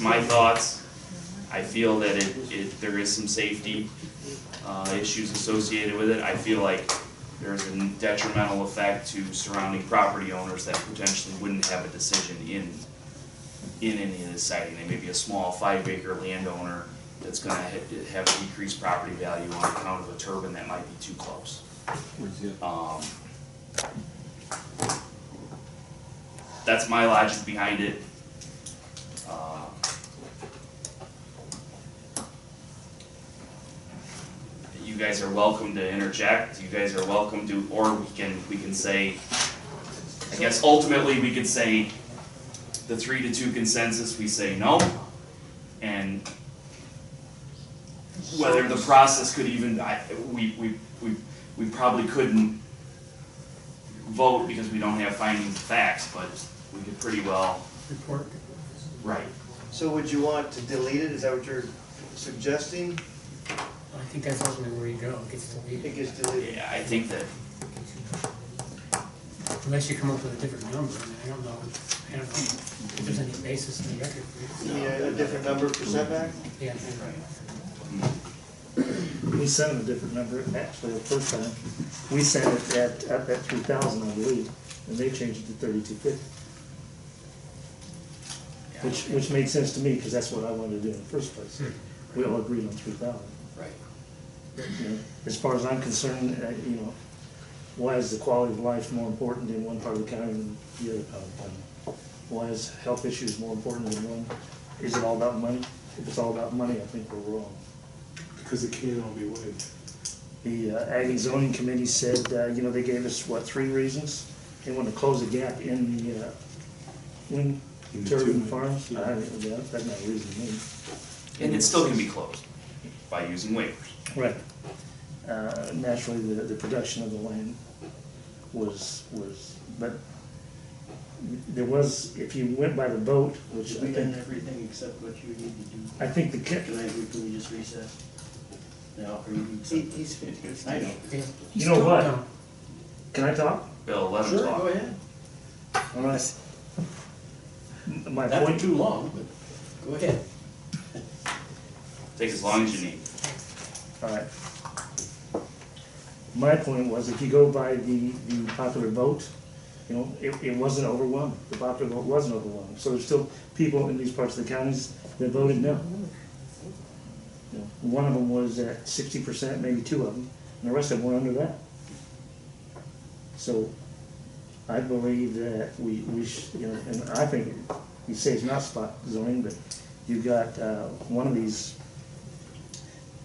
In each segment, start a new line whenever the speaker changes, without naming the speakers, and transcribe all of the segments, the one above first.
my thoughts. I feel that it, it, there is some safety, uh, issues associated with it. I feel like there is a detrimental effect to surrounding property owners that potentially wouldn't have a decision in, in any of this siding. They may be a small five acre landowner that's gonna ha- have a decreased property value on account of a turbine that might be too close. Um, That's my logic behind it. Uh, You guys are welcome to interject, you guys are welcome to, or we can, we can say, I guess ultimately, we could say the three to two consensus, we say no. And whether the process could even, I, we, we, we, we probably couldn't vote because we don't have findings of facts, but we could pretty well.
Report.
Right.
So would you want to delete it, is that what you're suggesting?
I think that's ultimately where you go, it gets deleted,
It gets deleted,
Yeah, I think that,
unless you come up with a different number, I mean, I don't know, I don't know if there's any basis in the record for
you mean a a different number for setback?
it. Yeah.
We sent them a different number, actually, the first time. We sent it at, at that three thousand, I believe, and they changed it to thirty-two fifty. Which, which made sense to me, because that's what I wanted to do in the first place. We all agreed on three thousand.
right,
You know, As far as I'm concerned, uh, you know, why is the quality of life more important in one part of the county than the other part of the county? Why is health issues more important than one? Is it all about money? If it's all about money, I think we're wrong.
Because it can all be waived.
The uh, Ag and Zoning Committee said, uh, you know, they gave us, what, three reasons? They want to close the gap in the uh, wind
In the
turbine
turbine,
farms. I
yeah.
don't know, that- that's not a reason to me.
and it still can be closed by using waivers.
Right. Uh, Naturally, the, the production of the land was, was, but there was, if you went by the vote, which I
We've done
think,
everything except what you need to do.
I think the,
Can
ca-
I, can we just recess? Now, or you need
He,
something?
he's, he's.
I know.
Yeah.
You know what? can I talk?
Bill, let him
Sure, go
talk.
ahead.
All right. M- My
That
point,
too long, but go ahead.
Take as long as you need.
all right. My point was, if you go by the, the popular vote, you know, it, it wasn't overwhelming. The popular vote wasn't overwhelming. So there's still people in these parts of the counties that voted no. You know, One of them was at sixty percent, maybe two of them, and the rest of them were under that. So I believe that we, we sh you know, and I think, you say it's not spot zoning, but you've got, uh, one of these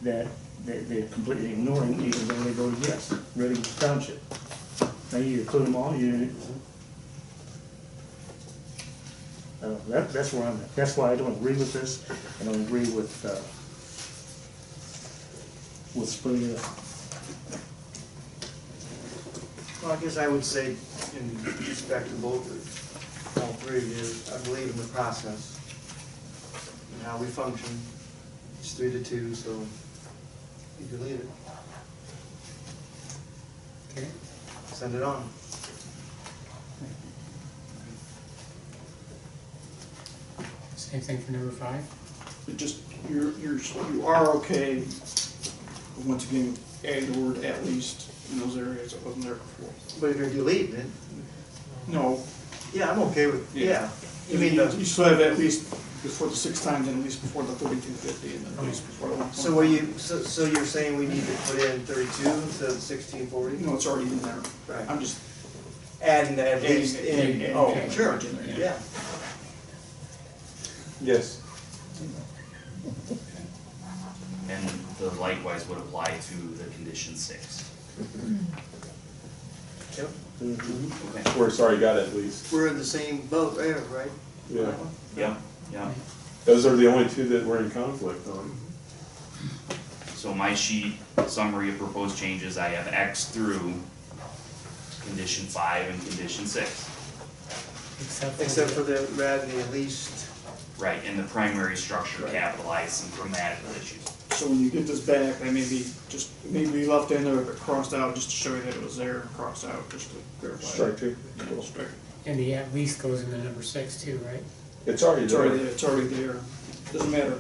that, that they're completely ignoring even though they voted yes, Reading Township. Now you include them all, you. Uh, that, that's where I'm at. That's why I don't agree with this. I don't agree with, uh, with splitting it up.
Well, I guess I would say, in respect to both, of- all three of you, I believe in the process and how we function. It's three to two, so you can leave it,
Okay,
send it on.
same thing for number five,
It just, you're, you're, you are okay, but once again, add the word at least in those areas that wasn't there before.
But if you're deleting it,
No.
yeah, I'm okay with,
Yeah.
yeah. You mean
You
the,
still have at least before the six times and at least before the thirty-two fifty and at least before the one.
so what you, so, so you're saying we need to put in thirty-two instead of sixteen forty?
You know, it's already in there.
Right.
I'm just.
Adding the at least
adding-
uh, in,
adding
oh,
that
sure,
language in there,
yeah.
Yes.
And the likewise would apply to the condition six.
Yep.
Okay.
We're sorry, got at least.
We're in the same boat there, right?
Yeah.
Yeah, yeah.
Those are the only two that we're in conflict on.
So my sheet summary of proposed changes, I have X through condition five and condition six.
except for.
Except for the, rather the at least,
Right, and the primary structure capitalized some grammatical issues.
So when you get this back, they may be just, maybe left in there, but crossed out just to show you that it was there, and crossed out just to verify.
Strike two.
Yeah, strike.
And the at least goes into number six too, right?
It's already
It's already,
there.
it's already there. doesn't matter